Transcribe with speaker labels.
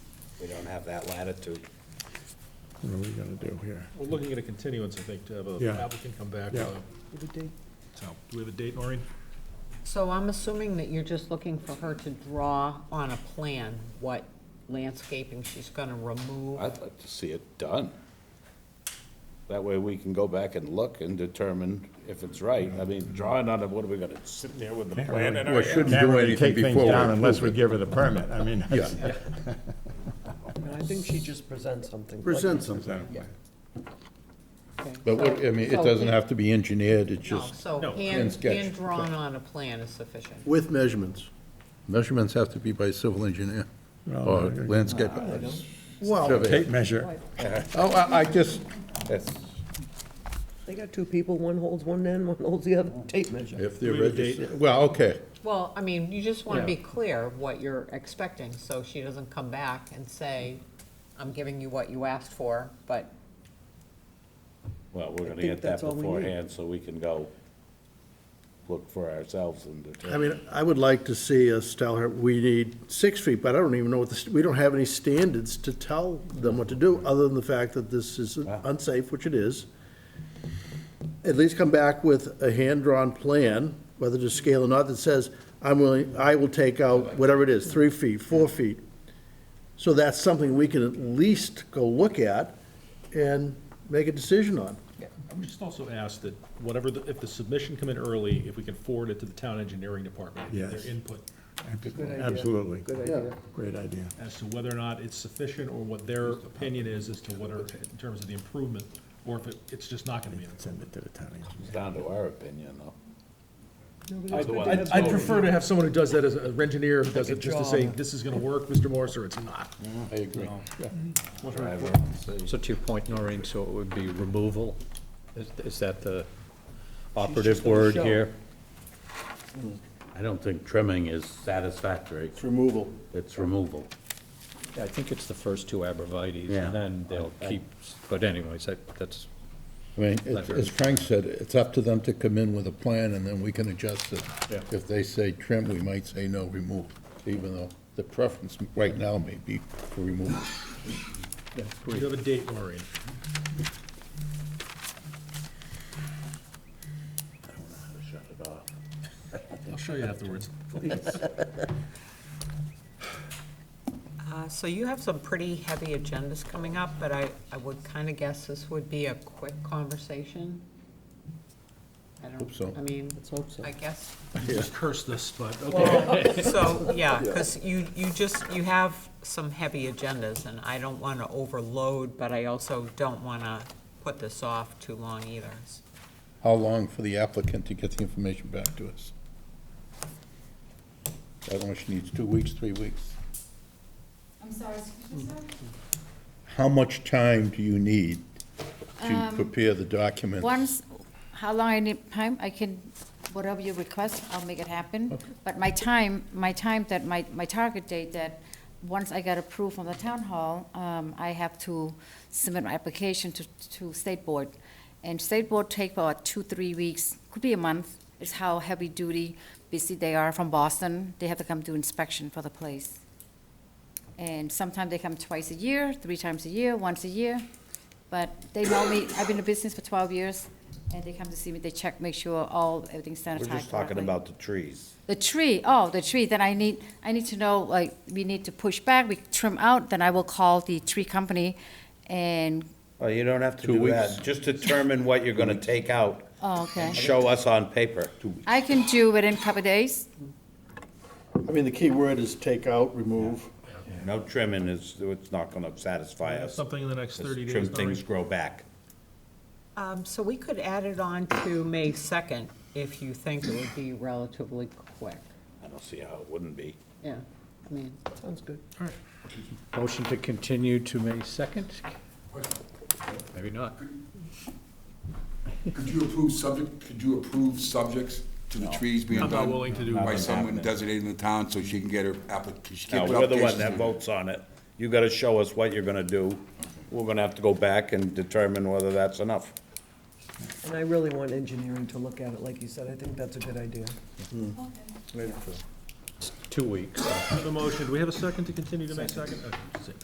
Speaker 1: We don't have that latitude.
Speaker 2: What are we gonna do here?
Speaker 3: We're looking at a continuance, I think, to have an
Speaker 2: Yeah.
Speaker 3: applicant come back.
Speaker 2: Yeah.
Speaker 3: uh, So, do we have a date, Maureen?
Speaker 4: So I'm assuming that you're just looking for her to draw on a plan what landscaping she's gonna remove?
Speaker 5: I'd like to see it done. That way we can go back and look and determine if it's right. I mean, drawing on it, what are we gonna, sit there with the plan in our
Speaker 2: We shouldn't do anything before we Unless we give her the permit, I mean. that's-
Speaker 6: No, I think she just presents something.
Speaker 7: Present
Speaker 2: is
Speaker 7: something.
Speaker 2: that-
Speaker 6: Yeah.
Speaker 4: Okay.
Speaker 7: But what, I mean, it doesn't have to be engineered, it's
Speaker 4: No,
Speaker 7: just
Speaker 4: so
Speaker 3: No.
Speaker 4: hand,
Speaker 7: sketch.
Speaker 4: hand drawn on a plan is sufficient.
Speaker 7: with measurements. Measurements have to be by civil engineer
Speaker 2: No,
Speaker 7: or
Speaker 2: no, no.
Speaker 7: landscape.
Speaker 2: Well, tape measure,
Speaker 7: Oh, I, I just,
Speaker 6: They got two people, one holds one end, one holds the other, tape measure.
Speaker 7: if they're
Speaker 3: We would date-
Speaker 7: registered, well, okay,
Speaker 4: Well, I mean, you just wanna be
Speaker 6: Yeah.
Speaker 4: clear what you're expecting, so she doesn't come back and say, I'm giving you what you asked for, but
Speaker 5: Well, we're gonna
Speaker 6: think
Speaker 5: get that
Speaker 6: that's all we need.
Speaker 5: beforehand, so we can go look for ourselves and
Speaker 7: I
Speaker 5: determine.
Speaker 7: mean, I would like to see us tell her, we need six feet, but I don't even know what the, we don't have any standards to tell them what to do, other than the fact that this is unsafe, which it is. At least come back with a hand-drawn plan, whether to scale or not, that says, I'm willing, I will take out whatever it is, three feet, four feet. So that's something we can at least go look at and make a decision on.
Speaker 3: I would just also ask that whatever, the- if the submission come in early, if we can forward it to the town engineering department. get
Speaker 2: Yes.
Speaker 3: Their input
Speaker 2: absolutely. Good idea. Great idea.
Speaker 3: as to whether or not it's sufficient or what their opinion is as to what are, in terms of the improvement, or if it, it's just not gonna be. an improvement.
Speaker 2: Send it to the town engineer.
Speaker 5: It's down to our opinion, though.
Speaker 3: I'd I'd prefer to have someone who does that as a an engineer, who does it just to say,
Speaker 6: drawing.
Speaker 3: this is gonna work, Mr. Morris, or it's not.
Speaker 5: I agree.
Speaker 3: Mm-hmm.
Speaker 8: So to your point, Noreen, so it would be removal? Is- Is that the operative word here?
Speaker 9: I don't think trimming is satisfactory. It's removal. It's removal.
Speaker 8: I think it's the first two abrevieties,
Speaker 9: Yeah.
Speaker 8: and then they'll keep, but anyways, that- that's,
Speaker 7: I mean, it- as Frank said, it's up to them to come in with a plan, and then we can adjust it.
Speaker 8: Yeah.
Speaker 7: If they say trim, we might say no, remove, even though the preference right now may be for removal.
Speaker 3: Do you have a date, Maureen? I'll show you afterwards.
Speaker 4: Uh, So you have some pretty heavy agendas coming up, but I, I would kind of guess this would be a quick conversation. I
Speaker 7: Hope so.
Speaker 4: don't, I mean,
Speaker 6: Let's hope so.
Speaker 4: I guess,
Speaker 3: You just cursed this, but, okay.
Speaker 4: well, so, yeah, because you, you just, you have some heavy agendas, and I don't want to overload, but I also don't want to put this off too long either.
Speaker 7: How long for the applicant to get the information back to us? I don't know, she needs two weeks, three weeks.
Speaker 10: I'm sorry, excuse me, sir?
Speaker 7: How much time do you need to prepare the documents?
Speaker 10: Once, how long I need time, I can, whatever you request, I'll make it happen. But my time, my time that, my, my target date that, once I got approved from the town hall, um, I have to submit my application to, to state board. And state board take about two, three weeks, could be a month, is how heavy duty, busy they are from Boston. They have to come do inspection for the place. And sometimes they come twice a year, three times a year, once a year. But they know me, I've been in business for 12 years, and they come to see me, they check, make sure all, everything's sanitized
Speaker 5: We're
Speaker 10: correctly.
Speaker 5: just talking about the trees.
Speaker 10: The tree, oh, the tree, then I need, I need to know, like, we need to push back, we trim out, then I will call the tree company and,
Speaker 1: Well, Oh, you don't have to
Speaker 7: Two
Speaker 1: do
Speaker 7: weeks.
Speaker 1: that. Just determine what you're gonna take out.
Speaker 10: oh, okay.
Speaker 1: and Show us on paper.
Speaker 10: I can do it in a couple of days.
Speaker 7: I mean, the key word is take out, remove.
Speaker 1: No trimming is, it's not gonna satisfy us.
Speaker 3: Something in the next
Speaker 1: Just
Speaker 3: thirty days,
Speaker 1: Trim
Speaker 3: Noreen.
Speaker 1: things grow back.
Speaker 4: Um, So we could add it on to May 2nd if you think it would be relatively quick.
Speaker 5: I don't see how it wouldn't be.
Speaker 4: Yeah, I mean.
Speaker 6: Sounds good.
Speaker 8: motion to continue to May 2nd? Maybe not.
Speaker 11: Could you approve subject, could you approve subjects to the trees being
Speaker 3: I'm
Speaker 11: done?
Speaker 3: not willing to do
Speaker 11: By
Speaker 3: that.
Speaker 11: someone designated in the town, so she can get her application, she
Speaker 1: No,
Speaker 11: can
Speaker 1: we're
Speaker 11: put
Speaker 1: the one
Speaker 11: applications
Speaker 1: that
Speaker 11: in.
Speaker 1: votes on it. You gotta show us what you're gonna do. We're gonna have to go back and determine whether that's enough.
Speaker 6: And I really want engineering to look at it, like you said, I think that's a good idea.
Speaker 8: Two weeks.
Speaker 3: The motion, do we have a second Uh, to continue to May second? Okay,